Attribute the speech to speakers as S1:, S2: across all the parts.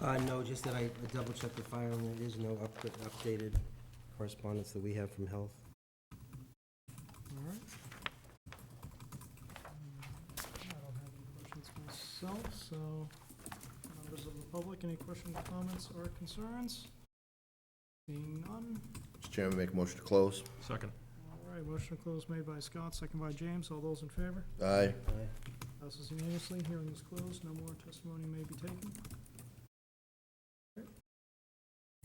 S1: Uh, no, just that I double-checked the file, and there is no up- updated correspondence that we have from Health.
S2: All right. I don't have any questions myself, so members of the public, any questions, comments, or concerns? Seeing none.
S3: Mr. Chairman, make a motion to close.
S4: Second.
S2: All right, motion to close made by Scott, second by James. All those in favor?
S3: Aye.
S1: Aye.
S2: Passes unanimously. Hearing is closed. No more testimony may be taken. All right.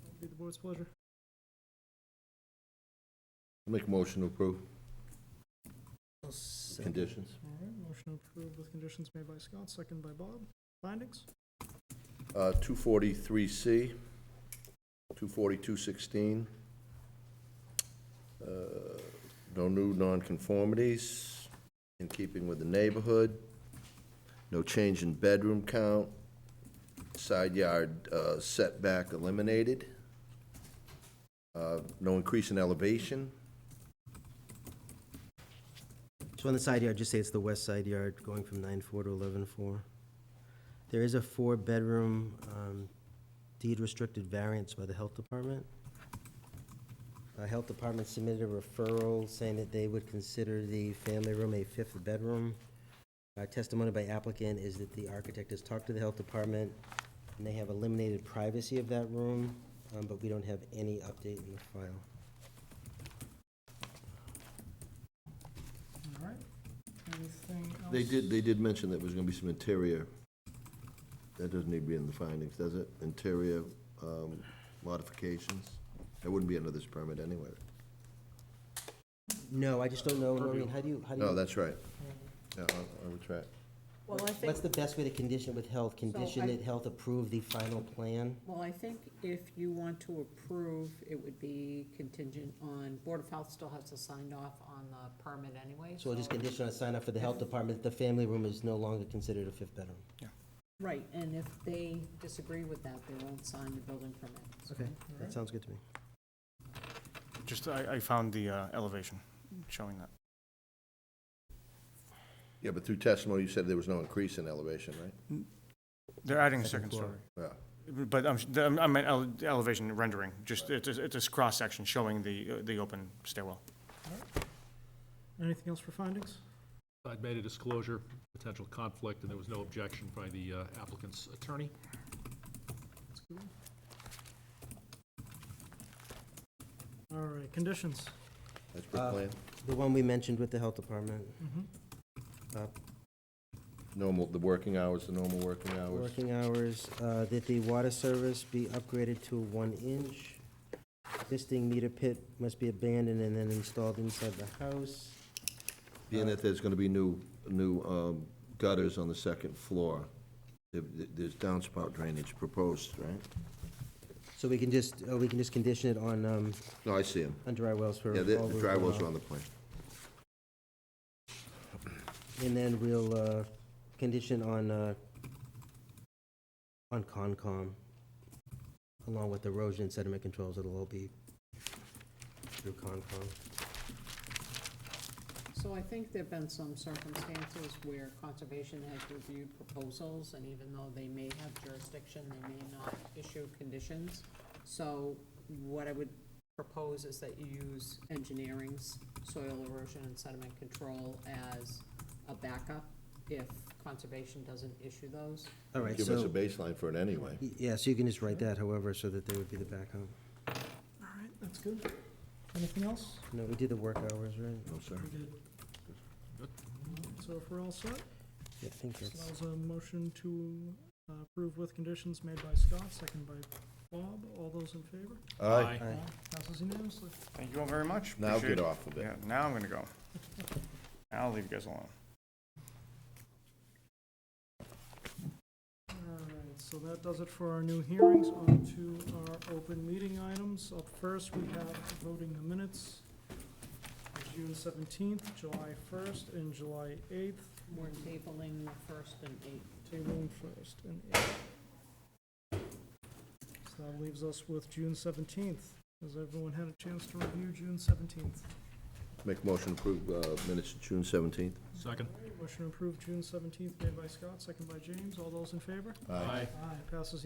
S2: That'll Be the board's pleasure.
S3: Make a motion to approve.
S1: I'll second.
S3: Conditions.
S2: All right, motion approved with conditions made by Scott, second by Bob. Findings?
S3: Uh, 243C, 24216. Uh, No new nonconformities in keeping with the neighborhood. No change in bedroom count. Side yard uh, setback eliminated. Uh, No increase in elevation.
S1: So on the side yard, just say it's the west side yard, going from nine-four to eleven-four. There is a four-bedroom um, deed-restricted variance by the Health Department. Uh, Health Department submitted a referral saying that they would consider the family room a fifth bedroom. Uh, Testimony by applicant is that the architect has talked to the Health Department, and they have eliminated privacy of that room, um, but we don't have any update in the file.
S2: All right. Anything else?
S3: They did, they did mention that there was gonna be some interior, that doesn't need to be in the findings, does it? Interior um, modifications? That wouldn't be under this permit anyway.
S1: No, I just don't know, Noreen, how do you, how do you?
S3: No, that's right. Yeah, I I would try. it.
S5: Well, I think,
S1: What's the best way to condition with health? Condition
S5: I-
S1: that health approve the final plan?
S5: well, I think if you want to approve, it would be contingent on, Board of Health still has to sign off on the permit anyway.
S1: So we'll just condition on sign off for the health department, that the family room is no longer considered a fifth bedroom.
S5: Right, and if they disagree with that, they won't sign the building permit.
S1: Okay, that sounds good to me.
S6: Just, I, I found the uh, elevation showing that.
S3: Yeah, but through testimony, you said there was no increase in elevation, right?
S6: They're adding a
S1: Second
S6: second
S1: floor.
S6: story.
S3: Yeah.
S6: But I'm, I meant ele- the elevation rendering, just, it's, a- it's a cross-section showing the, uh, the open stairwell.
S2: Anything else for findings?
S4: I'd made a disclosure, potential conflict, and there was no objection by the uh, applicant's attorney.
S2: That's good. All right, conditions.
S3: That's per
S1: Uh,
S3: plan.
S1: The one we mentioned with the health department,
S2: Mm-hmm.
S1: uh,
S3: Normal, the working hours, the normal working hours.
S1: working hours, uh, that the water service be upgraded to one inch. Existing meter pit must be abandoned and then installed inside the house.
S3: Being that there's gonna be new, new um, gutters on the second floor, there- there's downspout drainage proposed, right?
S1: So we can just, uh, we can just condition it on, um,
S3: No, I see them.
S1: on dry wells for.
S3: Yeah, the
S1: all
S3: the
S1: those
S3: dry
S1: runoff.
S3: wells are on the plan.
S1: And then we'll, uh, condition on, uh, on Concom, along with erosion and sediment controls, it'll all be through Concom.
S5: So I think there've been some circumstances where conservation has reviewed proposals, and even though they may have jurisdiction, they may not issue conditions. So what I would propose is that you use engineering's soil erosion and sediment control as a backup if conservation doesn't issue those.
S1: All right,
S3: Give us a
S1: so,
S3: baseline for it anyway.
S1: yeah, so you can just write that however, so that they would be the backup.
S2: All right, that's good. Anything else?
S1: No, we did the work hours, right?
S3: No, sir.
S2: We did.
S4: Good.
S2: So if we're all set,
S1: Yeah, I think
S2: so that
S1: that's,
S2: was a motion to uh, approve with conditions made by Scott, second by Bob. All those in favor?
S3: Aye.
S1: Aye.
S2: Passes unanimously.
S6: Thank you all very much.
S3: Now
S6: Appreciate
S3: get
S6: it.
S3: off of it.
S6: Yeah, now I'm gonna go. Now I'll leave you guys alone.
S2: All right, so that does it for our new hearings. On to our open meeting items. Up first, we have voting the minutes. June seventeenth, July first, and July eighth.
S5: We're tabling the first and eighth.
S2: Tabling first and eighth. So that leaves us with June seventeenth. Has everyone had a chance to review June seventeenth?
S3: Make a motion to approve uh, minutes of June 17th.
S4: Second.
S2: Motion approved June seventeenth made by Scott, second by James. All those in favor? Aye, passes